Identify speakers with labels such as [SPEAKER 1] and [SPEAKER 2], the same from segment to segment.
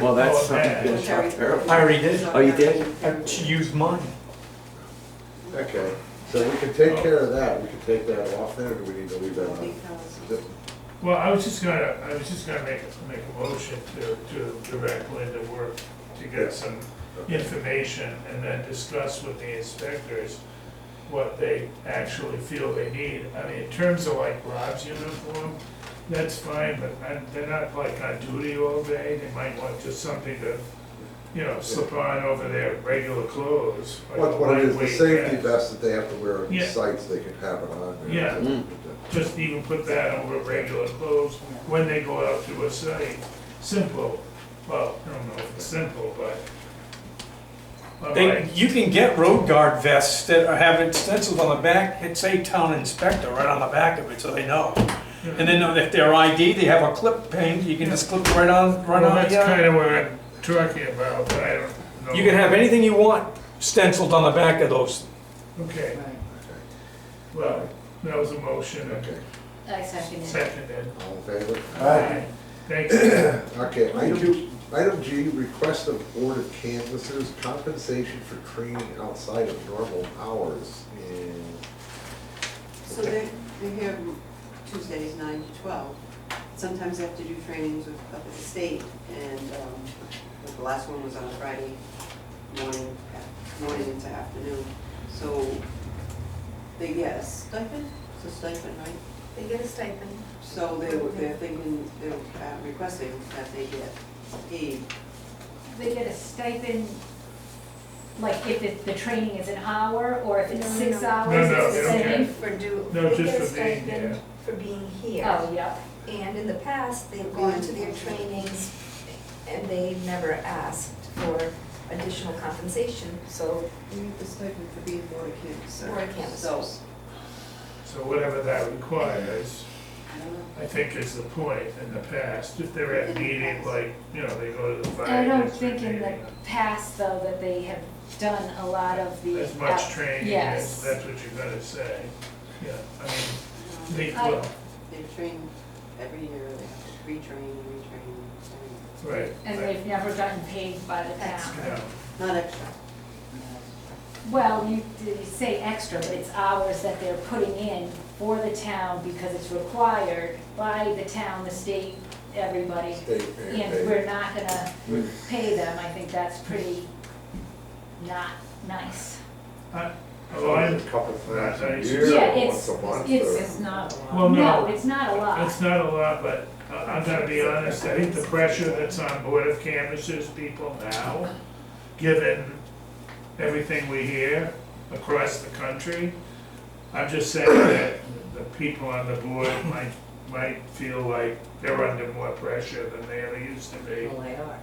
[SPEAKER 1] Well, that's
[SPEAKER 2] Oh,
[SPEAKER 1] something
[SPEAKER 2] okay.
[SPEAKER 1] that's not terrible.
[SPEAKER 2] I already did.
[SPEAKER 1] Oh, you did?
[SPEAKER 2] Uh, She used mine.
[SPEAKER 3] Okay, so we can take care of that, we can take that off there, or do we need to leave that on?
[SPEAKER 4] Because
[SPEAKER 2] Well, I was just gonna, I was just gonna make, make a motion to, to direct Linda work to get some information and then discuss with the inspectors what they actually feel they need. I mean, in terms of like Rob's uniform, that's fine, but I- they're not like on duty all day. They might want just something to, you know, slip on over their regular clothes. like a
[SPEAKER 3] What, what it is, the
[SPEAKER 2] lightweight
[SPEAKER 3] safety
[SPEAKER 2] vest.
[SPEAKER 3] vest that they have to wear on the
[SPEAKER 2] Yeah.
[SPEAKER 3] sites, they can have it on there.
[SPEAKER 2] Yeah.
[SPEAKER 1] Mm.
[SPEAKER 2] just even put that over regular clothes when they go out to a site. Simple, well, I don't know if it's simple, but. but
[SPEAKER 5] They,
[SPEAKER 2] like,
[SPEAKER 5] you can get road guard vests that are- have it stenciled on the back, it say town inspector right on the back of it, so they know.
[SPEAKER 2] you know,
[SPEAKER 5] And then if they're ID, they have a clip pin, you can just clip right on, right
[SPEAKER 2] Well,
[SPEAKER 5] on.
[SPEAKER 2] that's
[SPEAKER 5] the, uh,
[SPEAKER 2] kind of what I'm talking about, but I don't know.
[SPEAKER 5] You can have anything you want stenciled on the back of those.
[SPEAKER 2] Okay, well, that was a motion, and
[SPEAKER 3] Okay,
[SPEAKER 6] Uh,
[SPEAKER 4] I second it.
[SPEAKER 2] seconded.
[SPEAKER 3] all in favor?
[SPEAKER 2] Thanks, yeah,
[SPEAKER 3] Okay, item, item G, request of board of canvassers compensation for training outside of normal hours. And
[SPEAKER 7] So they, they have Tuesdays nine to twelve. Sometimes they have to do trainings with, up at the state, and, um, like the last one was on Friday morning, uh, morning into afternoon. So they get a stipend, it's a stipend, right?
[SPEAKER 8] They get a stipend.
[SPEAKER 7] So they, were- they're thinking, they're uh, requesting that they get paid
[SPEAKER 6] They get a stipend, like if it- the training is an hour, or if it's
[SPEAKER 8] No, no,
[SPEAKER 6] six
[SPEAKER 8] no.
[SPEAKER 6] hours,
[SPEAKER 2] No, no,
[SPEAKER 6] it's the
[SPEAKER 2] they don't
[SPEAKER 6] same?
[SPEAKER 2] care.
[SPEAKER 8] For do.
[SPEAKER 2] No,
[SPEAKER 8] they
[SPEAKER 2] just
[SPEAKER 8] get a
[SPEAKER 2] for being
[SPEAKER 8] stipend
[SPEAKER 2] here.
[SPEAKER 8] For being here.
[SPEAKER 6] Oh, yeah.
[SPEAKER 8] And in the past, they've gone to their trainings and they never asked for additional compensation, so
[SPEAKER 7] You need the stipend for being board canvasser.
[SPEAKER 8] Board
[SPEAKER 7] So,
[SPEAKER 8] canvassers.
[SPEAKER 2] so whatever that requires,
[SPEAKER 7] I don't know.
[SPEAKER 2] I think is the point in the past, if they're at meeting, like, you know, they go to the fire.
[SPEAKER 6] I don't
[SPEAKER 2] district
[SPEAKER 6] think in the
[SPEAKER 2] meeting.
[SPEAKER 6] past, though, that they have done a lot of the.
[SPEAKER 2] As much training as,
[SPEAKER 6] Yes.
[SPEAKER 2] that's what you're gonna say, yeah, I mean, they,
[SPEAKER 6] I-
[SPEAKER 2] well,
[SPEAKER 7] They train every year, they have to retrain, retrain,
[SPEAKER 2] right.
[SPEAKER 6] And
[SPEAKER 2] right,
[SPEAKER 6] they've never gotten paid by the town.
[SPEAKER 2] yeah.
[SPEAKER 7] train. not extra.
[SPEAKER 6] Well, you, you say extra, but it's hours that they're putting in for the town because it's required by the town, the state, everybody.
[SPEAKER 3] state
[SPEAKER 6] And we're
[SPEAKER 3] mandated.
[SPEAKER 6] not gonna pay them, I think that's pretty not nice.
[SPEAKER 2] Well, I'm-
[SPEAKER 3] couple times a
[SPEAKER 2] Nice.
[SPEAKER 3] year,
[SPEAKER 6] Yeah,
[SPEAKER 3] or once
[SPEAKER 6] it's,
[SPEAKER 3] a month.
[SPEAKER 6] it's,
[SPEAKER 3] or-
[SPEAKER 4] not a lot.
[SPEAKER 2] Well,
[SPEAKER 6] no,
[SPEAKER 2] no,
[SPEAKER 6] it's not a
[SPEAKER 2] it's
[SPEAKER 6] lot.
[SPEAKER 2] not a lot, but I- I'm gonna be honest, I think the pressure that's on Board of Canvassers people now, given everything we hear across the country, I'm just saying that the people on the board might, might feel like they're under more pressure than they ever used to be.
[SPEAKER 4] Well, they are.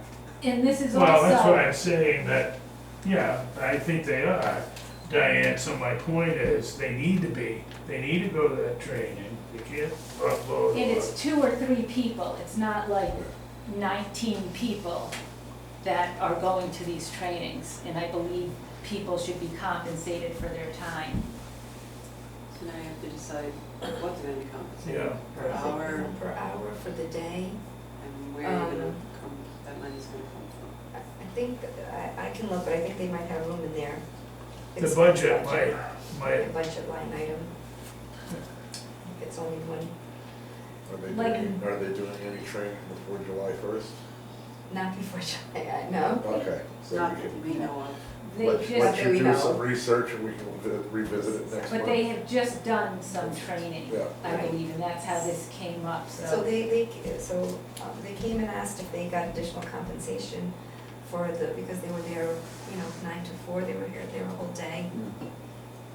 [SPEAKER 6] And this is
[SPEAKER 2] Well, that's what
[SPEAKER 6] also,
[SPEAKER 2] I'm saying, that, yeah, I think they are, Diane, so my point is, they need to be, they need to go to that training, they can't offload.
[SPEAKER 6] and it's two or three people, it's not like nineteen people that are going to these trainings. And I believe people should be compensated for their time.
[SPEAKER 7] So now you have to decide what's gonna be compensated
[SPEAKER 2] Yeah.
[SPEAKER 7] per hour
[SPEAKER 8] per hour for the day.
[SPEAKER 7] and where you're gonna come, that money's gonna come from.
[SPEAKER 8] I I think, that- I, I can look, but I think they might have room in there.
[SPEAKER 2] The budget might,
[SPEAKER 8] The
[SPEAKER 2] might,
[SPEAKER 8] budget line item. If It's only one,
[SPEAKER 3] Are they
[SPEAKER 6] Like-
[SPEAKER 3] doing, are they doing any training before July first?
[SPEAKER 8] not before July, I know.
[SPEAKER 3] Okay, so
[SPEAKER 7] Not
[SPEAKER 3] we
[SPEAKER 7] that
[SPEAKER 3] can,
[SPEAKER 7] we know of.
[SPEAKER 6] They
[SPEAKER 3] let
[SPEAKER 6] just,
[SPEAKER 3] let
[SPEAKER 8] there
[SPEAKER 3] you
[SPEAKER 8] we
[SPEAKER 3] do
[SPEAKER 8] go.
[SPEAKER 3] some research and we can vi- revisit it next month.
[SPEAKER 6] but they have just done some training,
[SPEAKER 3] Yeah.
[SPEAKER 6] I believe, and that's how this came up,
[SPEAKER 8] So they, they, so um, they came and asked if they got additional compensation for the, because they were there, you know, nine to four, they were here, they were a whole day.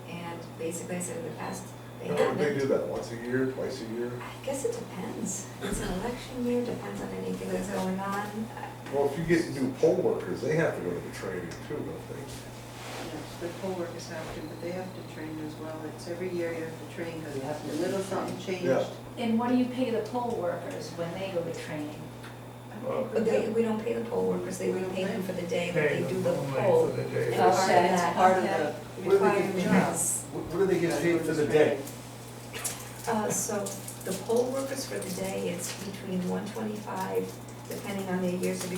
[SPEAKER 8] And basically, I said in the past, they
[SPEAKER 3] How would they
[SPEAKER 8] haven't.
[SPEAKER 3] do that, once a year, twice a year?
[SPEAKER 8] I guess it depends. It's an election year, depends on anything that's going on. I-
[SPEAKER 3] Well, if you get new poll workers, they have to go to the training too, don't
[SPEAKER 7] Yes, The poll workers have to, but they have to train as well. It's every year you have to train
[SPEAKER 4] You have to
[SPEAKER 7] because a little something changed.
[SPEAKER 3] Yeah.
[SPEAKER 6] And what do you pay the poll workers when they go to training?
[SPEAKER 2] well,
[SPEAKER 8] But they, we don't pay the poll workers, they
[SPEAKER 7] We
[SPEAKER 8] would
[SPEAKER 7] don't
[SPEAKER 8] pay
[SPEAKER 7] pay
[SPEAKER 8] them for the day that
[SPEAKER 2] pay
[SPEAKER 8] they do
[SPEAKER 2] them
[SPEAKER 8] the
[SPEAKER 2] only
[SPEAKER 8] poll.
[SPEAKER 2] for the day.
[SPEAKER 8] And part of
[SPEAKER 6] Okay.
[SPEAKER 7] It's
[SPEAKER 8] that
[SPEAKER 7] part of the.
[SPEAKER 3] What do they get
[SPEAKER 8] requirement is
[SPEAKER 3] they? What do they get paid for the day?
[SPEAKER 8] Uh, so the poll workers for the day, it's between one twenty-five, depending on their years of